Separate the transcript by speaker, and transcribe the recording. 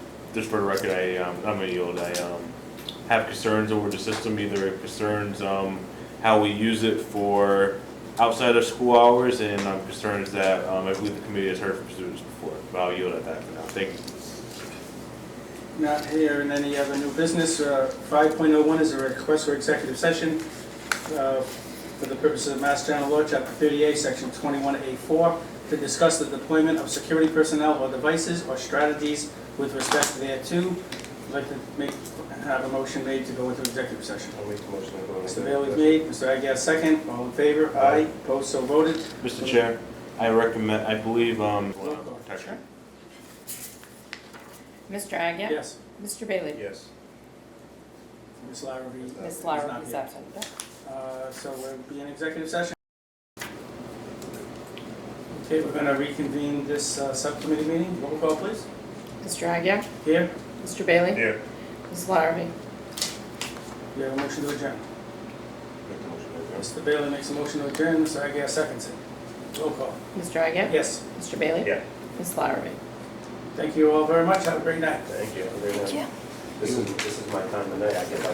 Speaker 1: just for the record, I, um, I'm gonna yield, I, um, have concerns over the system, either concerns, um, how we use it for outside of school hours, and I'm concerned that, um, I believe the committee has heard from students before, but I'll yield at that for now, thank you.
Speaker 2: Not here in any other new business. Uh, 5.01 is a request for executive session uh, for the purposes of Mass General Law, Chapter 38, Section 21A4, to discuss the deployment of security personnel or devices or strategies with respect thereto. I'd like to make, have a motion made to go into executive session.
Speaker 3: I'll make the motion. to go on.
Speaker 2: Mr. Bailey made, Mr. Aguirre second, all in favor? Aye. Opposed, so voted.
Speaker 1: Mr. Chair, I recommend, I believe, um.
Speaker 2: Roll call. Sure.
Speaker 4: Mr. Agia?
Speaker 2: Yes.
Speaker 4: Mr. Bailey?
Speaker 3: Yes.
Speaker 2: Ms. Lara, we-
Speaker 4: Ms.
Speaker 2: is
Speaker 4: Lara
Speaker 2: not
Speaker 4: is
Speaker 2: here.
Speaker 4: absent.
Speaker 2: Uh, So we'll be in executive session. Okay, we're going to reconvene this uh, subcommittee meeting. Roll call, please.
Speaker 4: Mr. Agia?
Speaker 2: Here,
Speaker 4: Mr. Bailey?
Speaker 3: Here.
Speaker 4: Ms. Larrabee?
Speaker 2: we have a motion to adjourn.
Speaker 3: Make the motion. to go.
Speaker 2: Mr. Bailey makes a motion to adjourn, Mr. Aguirre seconds it. Roll call.
Speaker 4: Mr. Agia?
Speaker 2: Yes,
Speaker 4: Mr. Bailey?
Speaker 3: Yeah.
Speaker 4: Ms. Larrabee?
Speaker 2: thank you all very much. Have a great night.
Speaker 3: Thank you. Thank you. This is, this is my time of night. I get my